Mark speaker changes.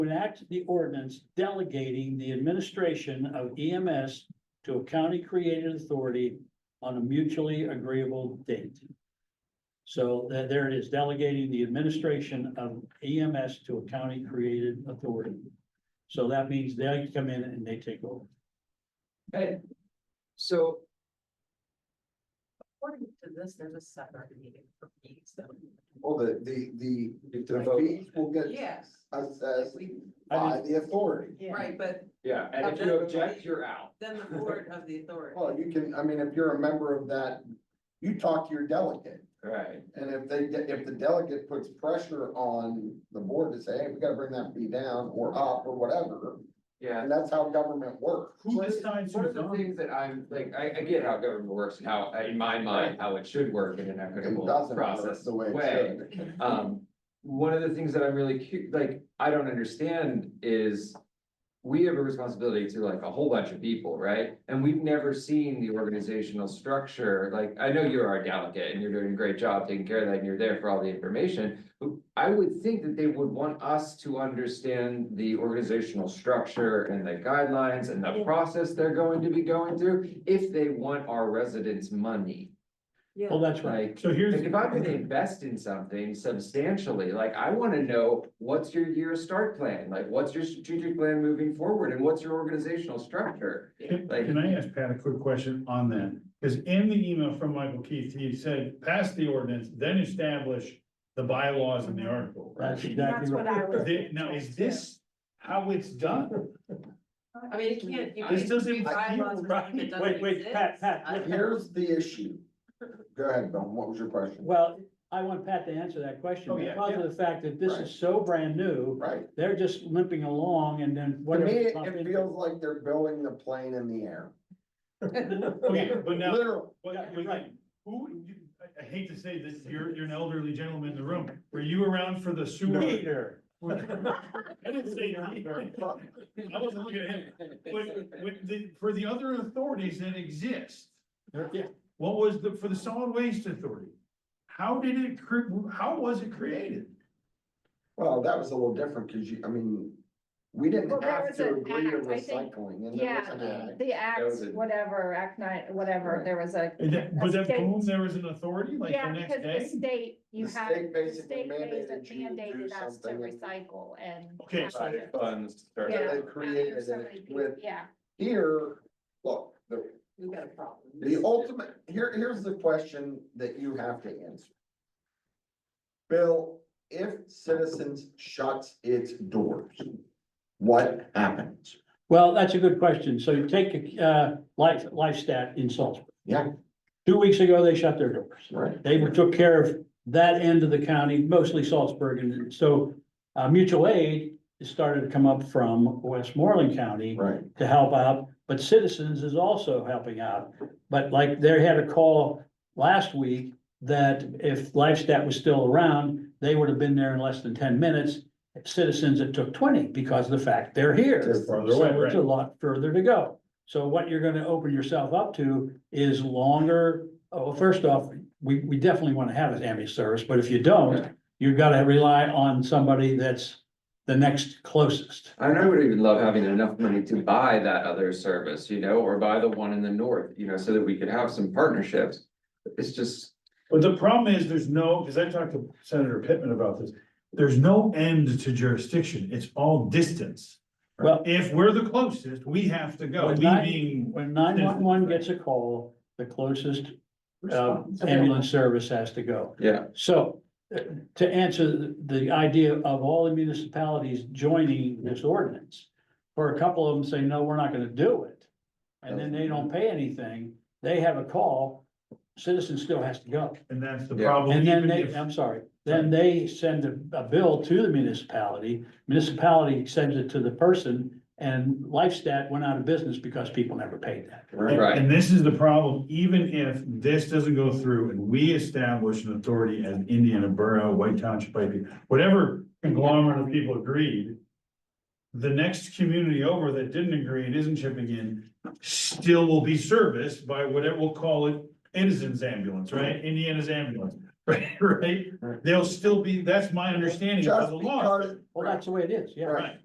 Speaker 1: enact the ordinance delegating the administration of EMS to a county-created authority on a mutually agreeable date. So there, there it is, delegating the administration of EMS to a county-created authority. So that means they come in and they take over.
Speaker 2: Hey, so
Speaker 3: According to this, there's a separate meeting for fees, so.
Speaker 4: Well, the, the, the,
Speaker 2: if the
Speaker 4: the
Speaker 2: vote,
Speaker 4: fees will get
Speaker 3: Yes.
Speaker 4: assessed
Speaker 3: We-
Speaker 1: I
Speaker 4: by the authority.
Speaker 3: Right, but
Speaker 2: yeah, and if you object, you're out.
Speaker 3: then the board of the authority.
Speaker 4: Well, you can, I mean, if you're a member of that, you talk to your delegate.
Speaker 2: Right.
Speaker 4: And if they, get- if the delegate puts pressure on the board to say, hey, we gotta bring that fee down or up or whatever,
Speaker 2: Yeah.
Speaker 4: and that's how government works.
Speaker 1: Who decides
Speaker 2: One
Speaker 1: who's
Speaker 2: of the
Speaker 1: on?
Speaker 2: things that I'm, like, I, I get how government works and how, in my mind, how it should work in an
Speaker 4: It
Speaker 2: equitable
Speaker 4: doesn't work
Speaker 2: process
Speaker 4: the way it
Speaker 2: way.
Speaker 4: should.
Speaker 2: Um, one of the things that I'm really cu- like, I don't understand is. We have a responsibility to like a whole bunch of people, right? And we've never seen the organizational structure, like, I know you're our delegate and you're doing a great job taking care of that and you're there for all the information. But I would think that they would want us to understand the organizational structure and the guidelines and the process they're going to be going through. If they want our residents' money,
Speaker 1: Well, Oh, that's right.
Speaker 2: like.
Speaker 5: So here's,
Speaker 2: Like if I'm gonna invest in something substantially, like I wanna know, what's your year start plan? Like, what's your strategic plan moving forward and what's your organizational structure?
Speaker 5: can
Speaker 2: like-
Speaker 5: can I ask Pat a quick question on that? Because in the email from Michael Keith, he said, pass the ordinance, then establish the bylaws in the article.
Speaker 1: That's
Speaker 6: That's
Speaker 1: exactly
Speaker 6: what
Speaker 1: right.
Speaker 6: I was.
Speaker 5: Th- Now, is this how it's done?
Speaker 3: I mean, you can't, you
Speaker 5: This
Speaker 3: can't
Speaker 5: doesn't
Speaker 3: do bylaws
Speaker 5: feel
Speaker 3: for
Speaker 5: right.
Speaker 3: something that doesn't
Speaker 1: Wait, wait, Pat,
Speaker 3: exist.
Speaker 1: Pat,
Speaker 3: I-
Speaker 1: look.
Speaker 4: Here's the issue. Go ahead, Bill, what was your question?
Speaker 1: Well, I want Pat to answer that question
Speaker 5: Oh, yeah,
Speaker 1: because of the fact that this
Speaker 4: Right.
Speaker 1: is so brand new.
Speaker 4: Right,
Speaker 1: They're just limping along and then
Speaker 4: to
Speaker 1: whatever.
Speaker 4: me, it
Speaker 1: comes
Speaker 4: it
Speaker 1: in-
Speaker 4: feels like they're building the plane in the air,
Speaker 5: Okay, but now,
Speaker 4: literally.
Speaker 5: but,
Speaker 1: Yeah, you're
Speaker 5: but
Speaker 1: right.
Speaker 5: who, you- I, I hate to say this, you're, you're an elderly gentleman in the room. Were you around for the sewer?
Speaker 1: Peter,
Speaker 5: I didn't say that. I wasn't looking at him. But, but the- for the other authorities that exist,
Speaker 1: There- yeah,
Speaker 5: What was the, for the solid waste authority? How did it, cre- how was it created?
Speaker 4: Well, that was a little different, cause you, I mean, we
Speaker 6: Well,
Speaker 4: didn't
Speaker 6: there
Speaker 4: have
Speaker 6: was
Speaker 4: to
Speaker 6: an
Speaker 4: agree to
Speaker 6: act, I think.
Speaker 4: recycling and there
Speaker 6: Yeah,
Speaker 4: was an act.
Speaker 6: the act,
Speaker 2: That was it.
Speaker 6: whatever, act nine, whatever,
Speaker 4: Right.
Speaker 6: there was a.
Speaker 5: And that, but
Speaker 6: a
Speaker 5: that,
Speaker 6: state-
Speaker 5: boom, there was an authority like the
Speaker 6: Yeah,
Speaker 5: next
Speaker 6: because
Speaker 5: day?
Speaker 6: the state, you
Speaker 4: The
Speaker 6: have,
Speaker 4: state
Speaker 6: the
Speaker 4: basically
Speaker 6: state
Speaker 4: mandated you to do
Speaker 6: mandated us to
Speaker 4: something and-
Speaker 6: recycle and.
Speaker 5: Okay,
Speaker 6: have
Speaker 5: so-
Speaker 6: it.
Speaker 2: Funds.
Speaker 4: So
Speaker 6: Yeah.
Speaker 4: They
Speaker 6: Now
Speaker 4: created
Speaker 6: there's so many
Speaker 4: it
Speaker 6: people-
Speaker 4: with
Speaker 6: Yeah,
Speaker 4: here, look, the,
Speaker 3: We've got a problem.
Speaker 4: the ultimate, here, here's the question that you have to answer. Bill, if Citizens shuts its doors, what happens?
Speaker 1: well, that's a good question. So you take, uh, life, life stat in Salisbury.
Speaker 4: Yeah.
Speaker 1: Two weeks ago, they shut their doors.
Speaker 4: Right.
Speaker 1: They were- took care of that end of the county, mostly Salzburg, and so uh, mutual aid started to come up from Westmoreland County
Speaker 4: Right,
Speaker 1: to help out, but Citizens is also helping out. But like, they had a call last week that if Lifestat was still around, they would have been there in less than ten minutes. Citizens, it took twenty because of the fact they're here.
Speaker 4: Just
Speaker 5: farther away,
Speaker 1: So it's
Speaker 5: right.
Speaker 1: a lot further to go. So what you're gonna open yourself up to is longer, oh, first off, we, we definitely wanna have an ambulance service, but if you don't, you've gotta rely on somebody that's the next closest.
Speaker 2: And I would even love having enough money to buy that other service, you know, or buy the one in the north, you know, so that we could have some partnerships. It's just,
Speaker 5: But the problem is, there's no, because I talked to Senator Pittman about this, there's no end to jurisdiction, it's all distance.
Speaker 1: Well-
Speaker 5: If we're the closest, we have to go,
Speaker 1: Well,
Speaker 5: we
Speaker 1: not-
Speaker 5: being.
Speaker 1: When nine-one-one gets a call, the closest uh, ambulance service has to go.
Speaker 2: yeah,
Speaker 1: So uh, to answer the- the idea of all the municipalities joining this ordinance, for a couple of them say, no, we're not gonna do it. And then they don't pay anything, they have a call, citizen still has to go.
Speaker 5: And that's the
Speaker 2: Yeah.
Speaker 5: problem.
Speaker 1: And then
Speaker 5: even
Speaker 1: they,
Speaker 5: if-
Speaker 1: I'm sorry, then they send a, a bill to the municipality, municipality sends it to the person. And Lifestat went out of business because people never paid that.
Speaker 5: And,
Speaker 4: right.
Speaker 2: Right.
Speaker 5: and this is the problem, even if this doesn't go through and we establish an authority as Indiana Borough, White Township, Pike, whatever conglomerate of people agreed. The next community over that didn't agree and isn't chipping in, still will be serviced by whatever, we'll call it Edison's ambulance, right? Indiana's ambulance, right, right? They'll still be, that's my understanding of
Speaker 4: Just
Speaker 5: the law.
Speaker 4: because,
Speaker 1: Well, that's the way it is, yeah.
Speaker 4: right,